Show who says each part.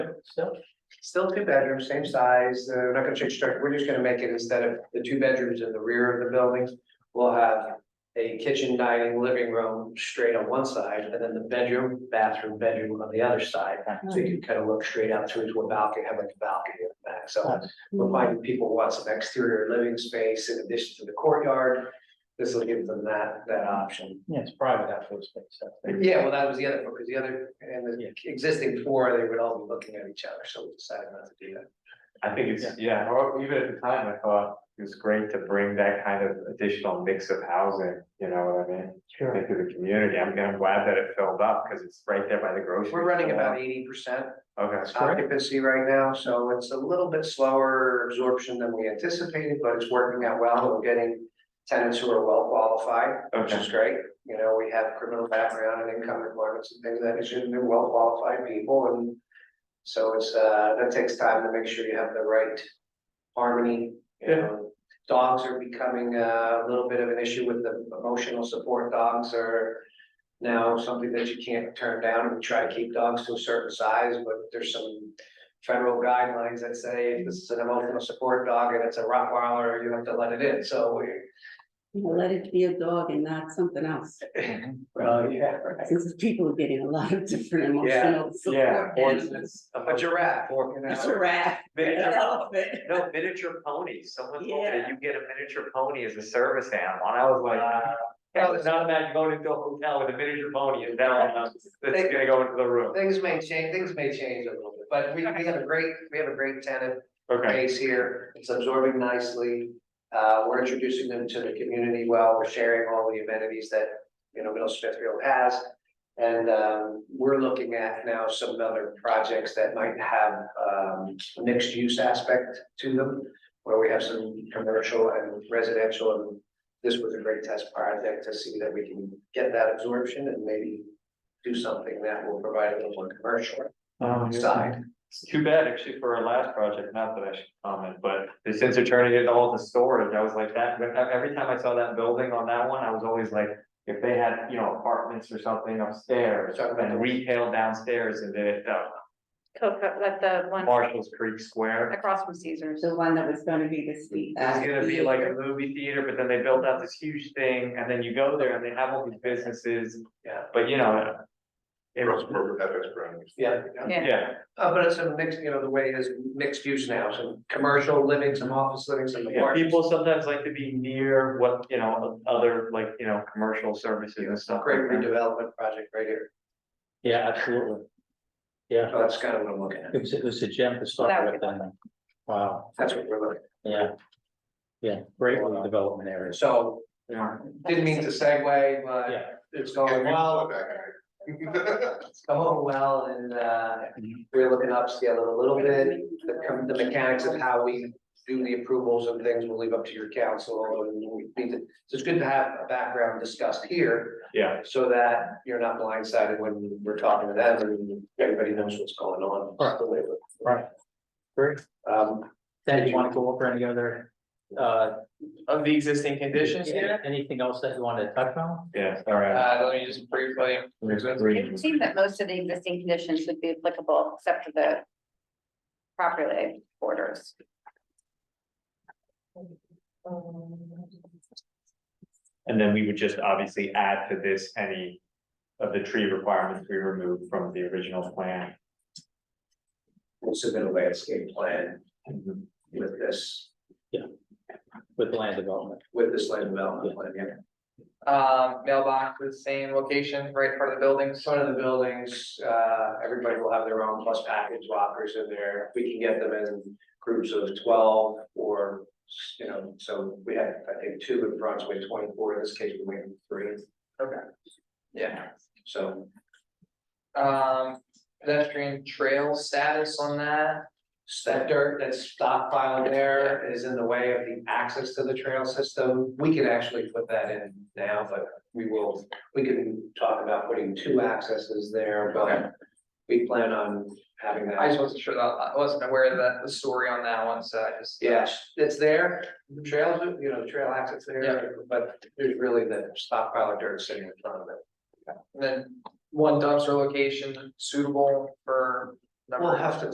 Speaker 1: still,
Speaker 2: Still two bedrooms, same size, uh, we're not gonna change structure, we're just gonna make it instead of the two bedrooms in the rear of the building. We'll have a kitchen, dining, living room straight on one side, and then the bedroom, bathroom, bedroom on the other side. So you can kind of look straight out through to a balcony, have like a balcony in the back, so we're finding people want some exterior living space in addition to the courtyard. This will give them that, that option.
Speaker 1: yeah, it's private outdoor space, so.
Speaker 2: Yeah, well, that was the other, because the other, and
Speaker 1: Yeah.
Speaker 2: the existing four, they would all be looking at each other, so we decided not to do that.
Speaker 3: I think it's, yeah, or even at the time, I thought it was great to bring that kind of additional mix of housing, you know what I mean?
Speaker 1: Sure.
Speaker 3: Into the community, I'm I'm glad that it filled up, because it's right there by the grocery.
Speaker 2: We're running
Speaker 3: store.
Speaker 2: about eighty percent
Speaker 3: Okay,
Speaker 1: Correct.
Speaker 2: occupancy right now, so it's a little bit slower absorption than we anticipated, but it's working out well. We're getting tenants who are well qualified, which
Speaker 3: Uh, okay,
Speaker 2: is great. You know, we have criminal background and income requirements and things that it should be well qualified people and so it's, uh, that takes time to make sure you have the right harmony, you
Speaker 3: Yeah.
Speaker 2: know. Dogs are becoming uh, a little bit of an issue with the emotional support dogs are now something that you can't turn down. We try to keep dogs to a certain size, but there's some federal guidelines that say if this is an emotional support dog and it's a Rottweiler, you have to let it in, so we.
Speaker 4: You know, Let it be a dog and not something else,
Speaker 2: Well, yeah, right.
Speaker 4: since people are getting a lot of different
Speaker 2: Yeah,
Speaker 4: emotional
Speaker 3: yeah,
Speaker 4: support. animals.
Speaker 2: A giraffe, you
Speaker 4: A
Speaker 2: know.
Speaker 4: Giraffe, an elephant.
Speaker 3: No, miniature ponies, someone
Speaker 4: told me that Yeah.
Speaker 3: you get a miniature pony as a service animal, and I was like.
Speaker 2: Uh, "Wow." it's
Speaker 3: not imagine going into a hotel with a miniature pony and
Speaker 2: it's
Speaker 3: gonna go into the room.
Speaker 2: Things may change, things may change a little bit, but we, we have a great, we have a great tenant
Speaker 3: Okay,
Speaker 2: base here. It's absorbing nicely. Uh, we're introducing them to the community well. We're sharing all the amenities that, you know, Middle Smithfield has. And, um, we're looking at now some other projects that might have, um, mixed use aspect to them. Where we have some commercial and residential and this was a great test project to see that we can get that absorption and maybe. Do something that will provide a little more commercial
Speaker 3: Um,
Speaker 2: side.
Speaker 3: It's too bad actually for our last project, not that I should comment, but since they're turning it all to storage, I was like that, but every time I saw that building on that one, I was always like. If they had, you know, apartments or something upstairs and retail downstairs and the uh,
Speaker 5: Coco, like the one
Speaker 3: Marshall's Creek Square.
Speaker 5: across from Caesar's.
Speaker 4: The one that was gonna be this week.
Speaker 3: It's gonna be like a movie theater, but then they built out this huge thing and then you go there and they have all these businesses.
Speaker 2: Yeah.
Speaker 3: But you know. It was,
Speaker 6: Russell, FX Brown.
Speaker 2: Yeah.
Speaker 3: yeah,
Speaker 2: Uh, but it's a mix, you know, the way is mixed use now, some commercial living, some office living, some
Speaker 3: yeah,
Speaker 2: apartments.
Speaker 3: people sometimes like to be near what, you know, other like, you know, commercial services and stuff.
Speaker 2: Great
Speaker 3: like that.
Speaker 2: redevelopment project right here,
Speaker 1: Yeah, absolutely. Yeah,
Speaker 2: so that's kind of what I'm looking at,
Speaker 1: it was, it was a gem to
Speaker 5: That
Speaker 1: start
Speaker 5: would
Speaker 1: with
Speaker 5: be
Speaker 1: then. Wow,
Speaker 2: that's what we're looking
Speaker 1: yeah. Yeah, great development
Speaker 2: at,
Speaker 1: areas.
Speaker 2: so,
Speaker 3: Yeah.
Speaker 2: didn't mean to segue, but
Speaker 1: Yeah,
Speaker 2: it's going well, it's going well, and, uh, we're looking to upscale it a little bit. The, com- the mechanics of how we do the approvals and things, we'll leave up to your council, and we need to, so it's good to have a background discussed here.
Speaker 3: Yeah,
Speaker 2: so that you're not blindsided when we're talking to them and everybody knows what's going on.
Speaker 1: Right. Right. Great.
Speaker 2: Um,
Speaker 1: Then you want to go over any other, uh,
Speaker 7: of the existing conditions here.
Speaker 1: anything else that you want to touch on?
Speaker 3: yeah, all right.
Speaker 7: Uh, let me just briefly,
Speaker 5: It would seem that most of the existing conditions would be applicable except for the properly orders.
Speaker 3: And then we would just obviously add to this any of the tree requirements we removed from the original plan.
Speaker 2: we'll submit a landscape plan with this,
Speaker 1: With land development.
Speaker 2: with this land development plan, yeah.
Speaker 7: um, mailbox with same location, right part of the buildings.
Speaker 2: Front of the buildings, uh, everybody will have their own plus package lockers in there. We can get them in groups of twelve or, you know, so we had, I think, two in Brunswick, twenty-four, in this case, we made three,
Speaker 7: Yeah.
Speaker 2: so.
Speaker 7: Um, pedestrian trail status on that.
Speaker 2: That dirt that's stockpiled there is in the way of the access to the trail system. We can actually put that in now, but we will, we can talk about putting two accesses there,
Speaker 7: Okay.
Speaker 2: but we plan on having that.
Speaker 7: I just wasn't sure that, I wasn't aware of the, the story on that one, so I just.
Speaker 2: Yes, it's there, the trails, you know, trail access
Speaker 7: Yeah.
Speaker 2: there, but there's really the stockpile of dirt sitting in front of it.
Speaker 7: And then one dumpster location suitable for. number
Speaker 2: We'll have to